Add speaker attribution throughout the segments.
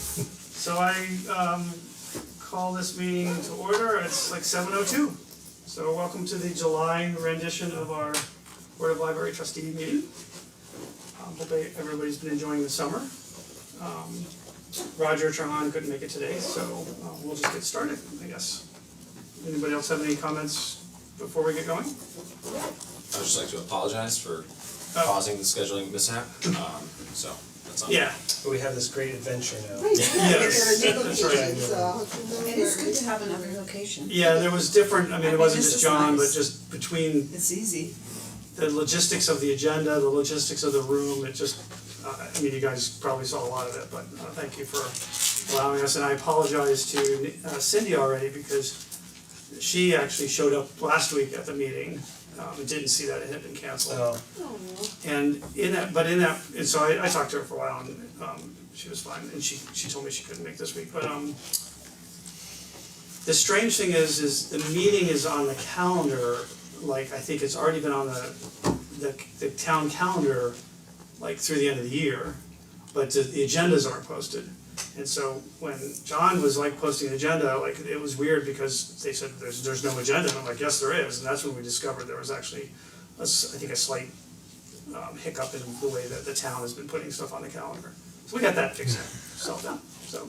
Speaker 1: So I um call this meeting to order, it's like seven oh two. So welcome to the July rendition of our Board of Library trustee meeting. Um hope everybody's been enjoying the summer. Um Roger Trahan couldn't make it today, so uh, we'll just get started, I guess. Anybody else have any comments before we get going?
Speaker 2: I'd just like to apologize for
Speaker 1: Oh.
Speaker 2: causing the scheduling mishap, um, so that's on.
Speaker 1: Yeah,
Speaker 3: But we have this great adventure now.
Speaker 4: Right, yeah, there
Speaker 1: Yes,
Speaker 4: are
Speaker 1: that's right.
Speaker 4: locations, uh,
Speaker 5: It is good to have another location.
Speaker 1: yeah, there was different, I mean,
Speaker 5: I
Speaker 1: it
Speaker 5: mean,
Speaker 1: wasn't
Speaker 5: this
Speaker 1: just
Speaker 5: is
Speaker 1: John, but
Speaker 5: nice.
Speaker 1: just between
Speaker 5: It's easy.
Speaker 1: the logistics of the agenda, the logistics of the room, it just, uh, I mean, you guys probably saw a lot of it, but uh, thank you for allowing us, and I apologize to uh, Cindy already because she actually showed up last week at the meeting, um, and didn't see that it had been canceled.
Speaker 3: So
Speaker 1: And in that, but in that, and so I I talked to her for a while and um she was fine and she she told me she couldn't make this week, but um the strange thing is, is the meeting is on the calendar, like I think it's already been on the the the town calendar like through the end of the year, but the the agendas aren't posted. And so when John was like posting an agenda, like it was weird because they said there's there's no agenda, and I'm like, yes, there is, and that's when we discovered there was actually a s- I think a slight um hiccup in the way that the town has been putting stuff on the calendar. So we got that fixed, solved out, so,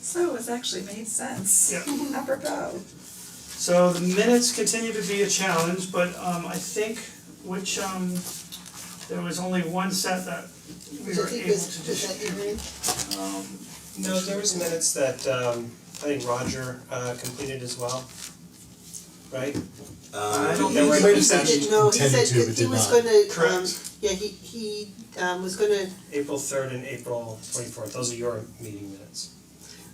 Speaker 5: So it's actually made sense.
Speaker 1: yeah.
Speaker 5: Apropos.
Speaker 1: So the minutes continue to be a challenge, but um I think which um there was only one set that we
Speaker 4: Which I
Speaker 1: were
Speaker 4: think
Speaker 1: able
Speaker 4: was,
Speaker 1: to
Speaker 4: was
Speaker 1: just
Speaker 4: that Erin?
Speaker 3: No, there was minutes that um I think Roger uh completed as well. Right?
Speaker 2: Uh,
Speaker 1: I don't
Speaker 4: He
Speaker 1: think
Speaker 4: was-
Speaker 1: we-
Speaker 4: he said, it- no, he said
Speaker 6: Intended to,
Speaker 4: that
Speaker 6: but
Speaker 4: he
Speaker 6: did
Speaker 4: was
Speaker 6: not.
Speaker 4: gonna, um,
Speaker 1: Correct.
Speaker 4: yeah, he, he, um, was gonna,
Speaker 3: April third and April twenty fourth, those are your meeting minutes.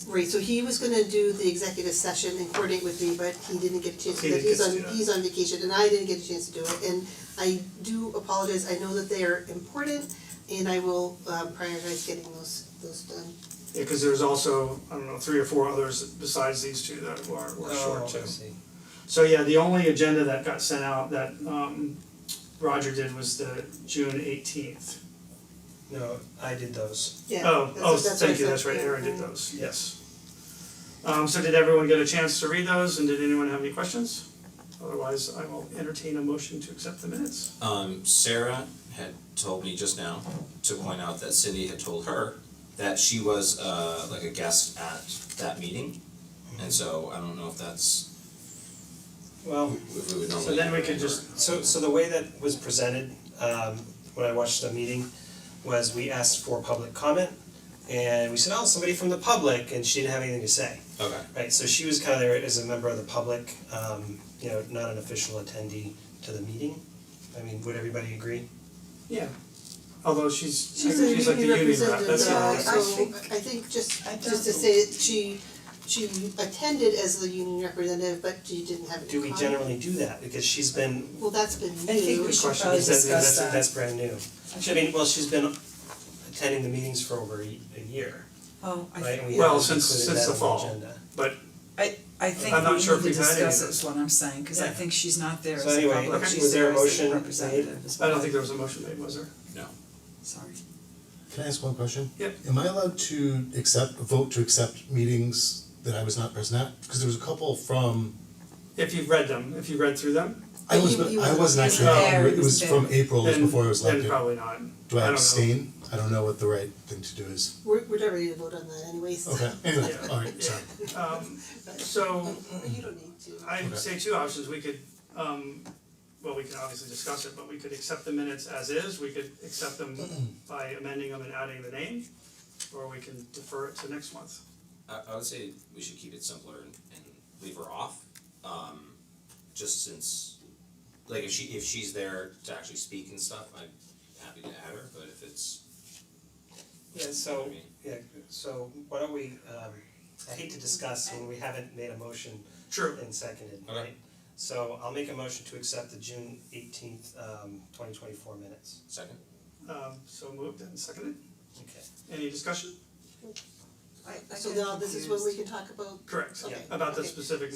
Speaker 4: right, so he was gonna do the executive session and coordinate with me, but he didn't get a chance
Speaker 1: He
Speaker 4: to do that,
Speaker 1: didn't
Speaker 4: he's
Speaker 1: get to
Speaker 4: on,
Speaker 1: do that.
Speaker 4: he's on vacation, and I didn't get a chance to do it, and I do apologize, I know that they are important, and I will, um, prioritize getting those, those done.
Speaker 1: Yeah, cause there's also, I don't know, three or four others besides these two that were were short too.
Speaker 3: Oh, I see.
Speaker 1: So yeah, the only agenda that got sent out that um Roger did was the June eighteenth.
Speaker 3: No, I did those.
Speaker 4: Yeah,
Speaker 1: Oh,
Speaker 4: that's,
Speaker 1: oh,
Speaker 4: that's what I
Speaker 1: thank you,
Speaker 4: said,
Speaker 1: that's right,
Speaker 4: yeah,
Speaker 1: Aaron did
Speaker 4: yeah.
Speaker 1: those, yes. Um so did everyone get a chance to read those and did anyone have any questions? Otherwise, I will entertain a motion to accept the minutes.
Speaker 2: um, Sarah had told me just now to point out that Cindy had told her that she was uh like a guest at that meeting. And so I don't know if that's,
Speaker 3: Well,
Speaker 2: if we would normally.
Speaker 1: So then we could
Speaker 2: or-
Speaker 1: just-
Speaker 3: so so the way that was presented um when I watched the meeting was we asked for public comment and we said, oh, somebody from the public and she didn't have anything to say.
Speaker 2: Okay,
Speaker 3: Right, so she was kind of there as a member of the public, um, you know, not an official attendee to the meeting. I mean, would everybody agree?
Speaker 1: Yeah. Although she's, I
Speaker 4: She's
Speaker 1: think
Speaker 4: a
Speaker 1: she's like the
Speaker 4: union
Speaker 1: union rep,
Speaker 4: representative,
Speaker 1: that's the only thing.
Speaker 4: uh,
Speaker 5: I
Speaker 4: so
Speaker 5: think-
Speaker 4: I think just
Speaker 5: I
Speaker 4: just to
Speaker 5: don't-
Speaker 4: say that she she attended as the union representative, but she didn't have any
Speaker 3: Do we
Speaker 4: comment.
Speaker 3: generally do that? Because she's been,
Speaker 4: Well, that's been
Speaker 5: I think
Speaker 4: new.
Speaker 5: we should
Speaker 1: question.
Speaker 5: probably
Speaker 1: Is
Speaker 3: that's
Speaker 5: discuss
Speaker 3: that's
Speaker 5: that.
Speaker 3: that's brand new. I mean, well, she's been attending the meetings for over a a year,
Speaker 5: Oh, I
Speaker 3: right? And we
Speaker 5: think,
Speaker 1: Well,
Speaker 3: haven't
Speaker 1: since-
Speaker 3: included
Speaker 1: since
Speaker 3: that
Speaker 1: the
Speaker 3: on
Speaker 1: fall.
Speaker 3: agenda.
Speaker 1: But
Speaker 5: I think
Speaker 1: I'm not
Speaker 5: we
Speaker 1: sure if
Speaker 5: need to
Speaker 1: we've had any
Speaker 5: discuss
Speaker 1: of
Speaker 5: it is what I'm saying, cause I
Speaker 3: Yeah.
Speaker 5: think she's not there
Speaker 3: So
Speaker 5: as a
Speaker 3: anyway,
Speaker 5: public,
Speaker 1: okay.
Speaker 5: she's
Speaker 3: was there a
Speaker 5: there as a
Speaker 3: motion made?
Speaker 5: representative as
Speaker 1: I
Speaker 5: well.
Speaker 1: don't think there was a motion made, was there?
Speaker 2: no,
Speaker 5: Sorry.
Speaker 6: Can I ask one question?
Speaker 1: Yep.
Speaker 6: Am I allowed to accept, vote to accept meetings that I was not present at? Because there was a couple from,
Speaker 1: If you've read them, if you read through them,
Speaker 6: I
Speaker 4: But
Speaker 6: was,
Speaker 4: you- you
Speaker 6: I
Speaker 4: were-
Speaker 6: wasn't
Speaker 1: you
Speaker 6: actually,
Speaker 1: were
Speaker 6: at-
Speaker 5: there,
Speaker 6: it
Speaker 5: you
Speaker 6: was
Speaker 5: were
Speaker 6: from
Speaker 5: there.
Speaker 6: April, it was
Speaker 1: then
Speaker 6: before I was
Speaker 1: then
Speaker 6: elected.
Speaker 1: probably not,
Speaker 6: Do
Speaker 1: I
Speaker 6: I
Speaker 1: don't know.
Speaker 6: abstain? I don't know what the right thing to do is.
Speaker 4: We're we're not ready to vote on that anyways.
Speaker 6: Okay, anyway,
Speaker 1: Yeah.
Speaker 6: alright, sorry.
Speaker 1: Um so
Speaker 4: You don't need to.
Speaker 1: I
Speaker 6: Okay.
Speaker 1: say two options, we could um well, we can obviously discuss it, but we could accept the minutes as is, we could accept them by amending them and adding the name. Or we can defer it to next month.
Speaker 2: I I would say we should keep it simpler and and leave her off. Um, just since, like if she if she's there to actually speak and stuff, I'm happy to add her, but if it's,
Speaker 3: Yeah,
Speaker 2: I
Speaker 3: so,
Speaker 2: mean,
Speaker 3: yeah, so why don't we, um, I hate to discuss when we haven't made a motion
Speaker 1: True.
Speaker 3: And seconded,
Speaker 2: Okay.
Speaker 3: right? So I'll make a motion to accept the June eighteenth, um, twenty twenty-four minutes.
Speaker 2: second,
Speaker 1: Um so moved and seconded,
Speaker 3: Okay.
Speaker 1: any discussion?
Speaker 5: I I
Speaker 4: So
Speaker 5: get
Speaker 4: now this is when we
Speaker 5: confused.
Speaker 4: can talk about
Speaker 1: Correct,
Speaker 4: Okay.
Speaker 1: about the
Speaker 4: Okay.
Speaker 1: specific